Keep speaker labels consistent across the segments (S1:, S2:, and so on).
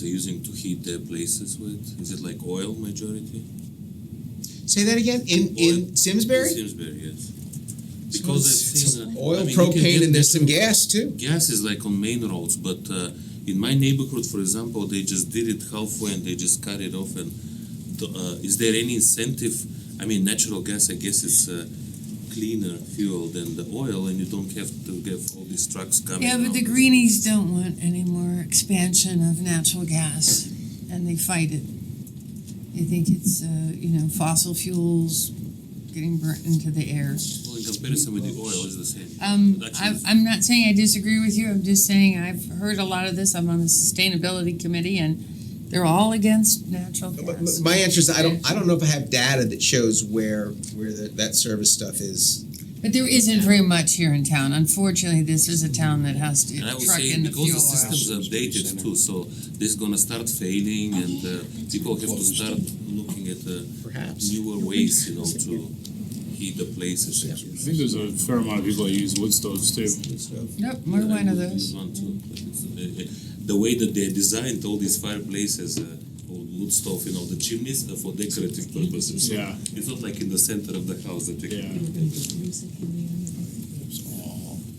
S1: They're using to heat their places with? Is it like oil majority?
S2: Say that again, in, in Simsbury?
S1: Simsbury, yes.
S2: So
S1: Because I've
S2: it's- it's
S1: seen. uh, I
S2: Oil,
S1: mean, you can
S2: propane,
S1: get
S2: and there's some gas too.
S1: Gas is like on main roads, but uh, in my neighborhood, for example, they just did it halfway and they just cut it off. And the, uh, is there any incentive? I mean, natural gas, I guess it's uh, cleaner fuel than the oil, and you don't have to get all these trucks coming.
S3: Yeah, but the
S1: out.
S3: greenies don't want any more expansion of natural gas, and they fight it. They think it's, uh, you know, fossil fuels getting burnt into the air.
S1: Well, in comparison with the oil, is the same.
S3: Um,
S1: That's
S3: I'm,
S1: easy.
S3: I'm not saying I disagree with you, I'm just saying I've heard a lot of this, I'm on the sustainability committee, and they're all against natural
S2: But m-
S3: gas.
S2: My answer is I don't, I don't know if I have data that shows where, where the- that service stuff is.
S3: But there isn't very much here in town, unfortunately, this is a town that has to
S1: And I was
S3: truck
S1: saying
S3: in the fuel
S1: because the
S3: oil.
S1: systems are dated too, so this is gonna start failing,
S4: Ah,
S1: and uh, people have to start looking at uh,
S2: Perhaps.
S1: newer ways, you know, to heat the places. and
S4: I
S1: things.
S4: think there's a fair amount of people that use wood stoves too.
S3: Nope, more one of those.
S1: One too, but it's, uh, uh, The way that they designed all these fireplaces, uh, old wood stove, you know, the chimneys are for decorative purposes. So
S4: Yeah.
S1: It's not like in the center of the house that they.
S4: Yeah.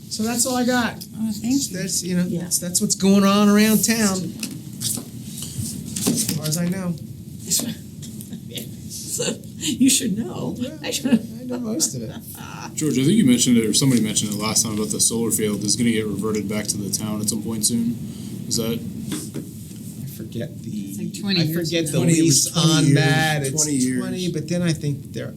S2: So that's all I got.
S3: Oh, thank you.
S2: That's, you know, that's, that's what's going on around town. As far as I know.
S5: So you should know. I should.
S2: I know most of it.
S4: George, I think you mentioned it, or somebody mentioned it last time about the solar field is going to get reverted back to the town at some point soon. Is that
S2: I forget the.
S3: It's like 20 years
S2: I forget the
S3: ago.
S6: 20 it was
S2: lease
S6: 20
S2: on
S6: years,
S2: that,
S6: 20
S2: it's
S6: years.
S2: twenty, but then I think there,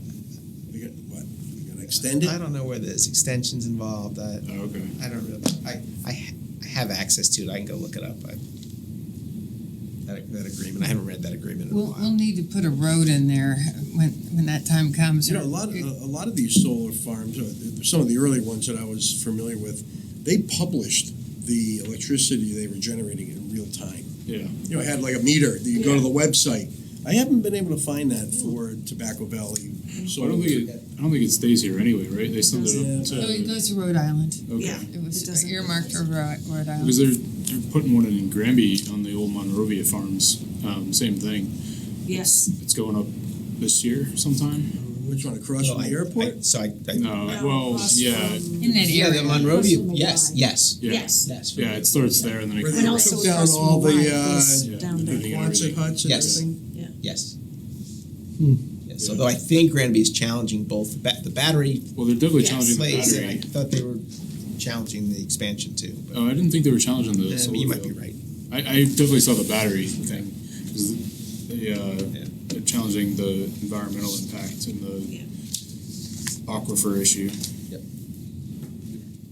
S6: We got, what, we gotta extend it?
S2: I don't know where there's extensions involved, I,
S4: oh, okay?
S2: I don't really, I, I, ha- I have access to it, I can go look it up, I. That, that agreement, I haven't read that agreement in a
S3: We'll, we'll
S2: while.
S3: need to put a road in there when, when that time comes.
S6: You know, a lot, a a lot of these solar farms, uh, some of the early ones that I was familiar with, they published the electricity they were generating in real time.
S4: Yeah.
S6: You know, it had like a meter, that you go to the website. I haven't been able to find that for Tobacco Valley.
S4: So I don't think it, I don't think it stays here anyway, right? They send it
S3: So it
S4: to
S3: goes to Rhode Island.
S4: okay
S3: It
S5: It
S3: was
S5: doesn't-
S3: earmarked for Rhode Rhode Island.
S4: because they're they're putting one in, in Granby on the old Monrovia farms. Um, same thing.
S5: Yes.
S4: It's going up this year sometime.
S6: Which one, across
S2: So
S6: from
S2: Oh, I-
S6: the airport?
S2: I- So I, I,
S5: Oh,
S4: No. Well, yeah,
S3: In that
S2: yeah, the
S3: area.
S2: Monrovia,
S5: Russell
S2: yes,
S5: Mumbai.
S2: yes,
S4: yeah,
S5: Yes.
S2: yes.
S4: yeah. It starts there and then it
S6: Where
S4: goes
S6: they
S5: And
S4: up.
S5: also
S6: took
S5: it
S6: down
S5: goes
S6: all
S5: from
S6: the,
S5: Hawaii, goes
S6: uh,
S5: down
S6: the
S5: there.
S6: Quonset huts and
S2: Yes.
S6: everything?
S2: Yes. Yes,
S4: Hmm. Yeah.
S2: although I think Granby is challenging both the ba- the battery
S4: Well, they're definitely
S5: Yes.
S4: challenging Oh, the
S2: place, and
S4: battery.
S2: I thought they were challenging the expansion too, but
S4: Oh, I didn't think they were challenging the
S2: eh,
S4: solar
S2: you might be
S4: field.
S2: right.
S4: I, I definitely saw the battery thing. 'cause They, uh,
S2: Yeah.
S4: They're challenging the environmental impact and the
S5: Yeah.
S4: aquifer issue.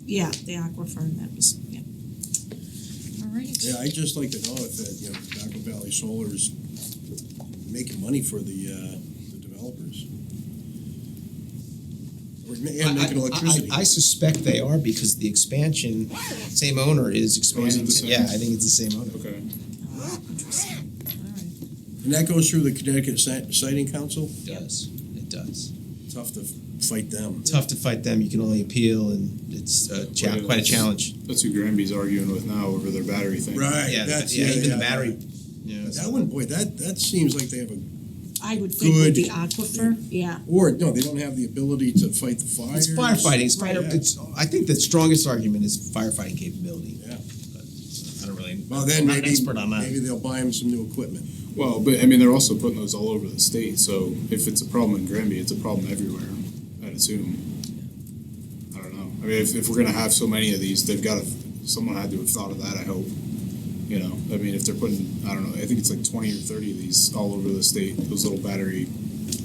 S5: Yeah, the aquifer, and that was, yeah. All right.
S6: Yeah, I'd just like to know if, uh, you know, Tobacco Valley Solar is making money for the, uh, the developers. Or, ma- and making
S2: I- I-
S6: electricity.
S2: I, I suspect they are because the expansion, same owner is expanding.
S4: Oh, the
S2: to-
S4: same?
S2: Yeah, I think it's the same owner.
S4: Okay.
S5: Uh,
S6: And that goes through the Connecticut Si- Siting Council?
S2: It does. It does.
S6: Tough to f- fight them.
S2: Tough to fight them. You can only appeal, and it's a cha-
S4: Well,
S2: quite a
S4: it's-
S2: challenge.
S4: That's who Granby's arguing with now over their battery thing.
S6: Right,
S2: Yeah,
S6: that's,
S2: yeah,
S6: yeah,
S2: even the
S6: yeah.
S2: battery. Yeah.
S6: That one, boy, that, that seems like they have a,
S5: I would think with
S6: Good.
S5: the aquifer, yeah.
S6: or, no, they don't have the ability to fight the fires.
S2: It's firefighting. It's fire.
S6: Right.
S2: It's. I think the strongest argument is firefighting capability.
S6: Yeah.
S2: But uh, I don't really.
S6: Well, then
S2: I'm not an
S6: maybe,
S2: expert on that.
S6: maybe they'll buy them some new equipment.
S4: Well, but I mean, they're also putting those all over the state. So if it's a problem in Granby, it's a problem everywhere, I'd assume. I don't know. I mean, if, if we're going to have so many of these, they've got to, someone had to have thought of that, I hope. You know, I mean, if they're putting, I don't know, I think it's like 20 or 30 of these all over the state, those little battery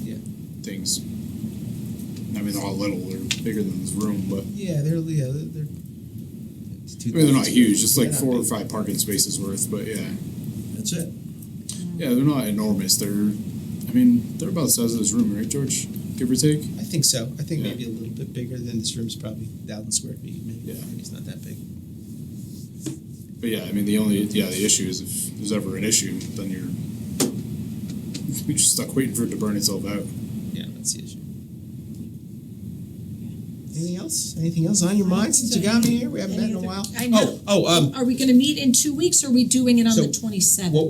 S2: Yeah.
S4: things. I mean, they're all little, they're bigger than this room, but
S2: Yeah, they're. Yeah, they're. they're it's
S4: I mean, they're not
S2: 2000.
S4: huge, just like
S2: They're not
S4: four or
S2: big.
S4: five parking spaces worth, but yeah.
S6: That's it.
S4: Yeah, they're not enormous. They're, I mean, they're about the size of this room, right, George? Give or take.
S2: I think so. I think
S4: Yeah.
S2: maybe a little bit bigger than this room's probably thousand square feet. Maybe,
S4: Yeah.
S2: maybe it's not that big.
S4: But yeah, I mean, the only yeah the issue is if there's ever an issue, then you're you're just stuck waiting for it to burn itself out.
S2: Yeah, that's the issue. Anything else? Anything else on your mind since you got me here? We haven't met in a while.
S5: I know.
S2: Oh, oh, um,
S5: Are we gonna meet in two weeks, or are we doing it on
S2: So,
S5: the twenty-seventh?
S2: what-